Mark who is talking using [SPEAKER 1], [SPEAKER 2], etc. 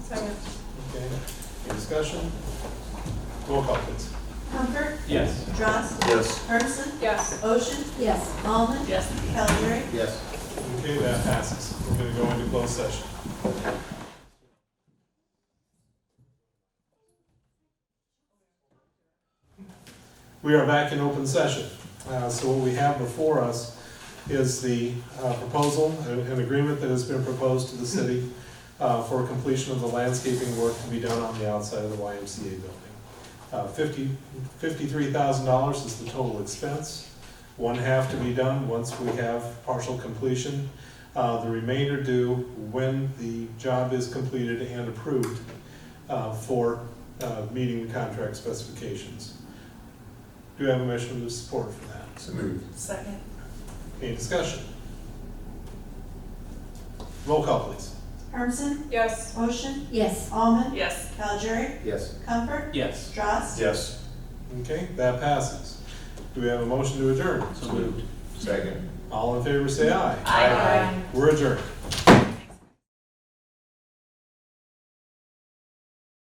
[SPEAKER 1] discussion? Roll call, please.
[SPEAKER 2] Comfort?
[SPEAKER 1] Yes.
[SPEAKER 2] Johnson?
[SPEAKER 3] Yes.
[SPEAKER 2] Hermson?
[SPEAKER 4] Yes.
[SPEAKER 2] Ocean?
[SPEAKER 4] Yes.
[SPEAKER 2] Almond?
[SPEAKER 4] Yes.
[SPEAKER 2] Calgery?
[SPEAKER 3] Yes.
[SPEAKER 1] Okay, that passes. We're gonna go into closed session. We are back in open session. Uh, So what we have before us is the uh, proposal, an an agreement that has been proposed to the city uh, for completion of the landscaping work to be done on the outside of the YMCA building. Uh, Fifty, fifty-three thousand dollars is the total expense one half to be done once we have partial completion. Uh, the remainder due when the job is completed and approved, uh, for, uh, meeting the contract specifications. Do I have a motion of support for that?
[SPEAKER 3] So moved.
[SPEAKER 2] Second.
[SPEAKER 1] Any discussion? Roll call, please.
[SPEAKER 2] Hermson?
[SPEAKER 4] Yes.
[SPEAKER 2] Ocean?
[SPEAKER 4] Yes.
[SPEAKER 2] Almond?
[SPEAKER 4] Yes.
[SPEAKER 2] Calgery?
[SPEAKER 3] Yes.
[SPEAKER 2] Comfort?
[SPEAKER 5] Yes.
[SPEAKER 2] Johnson?
[SPEAKER 3] Yes.
[SPEAKER 1] Okay, that passes. Do we have a motion to adjourn?
[SPEAKER 5] So moved.
[SPEAKER 3] Second.
[SPEAKER 1] All in favor, say aye. We're adjourned.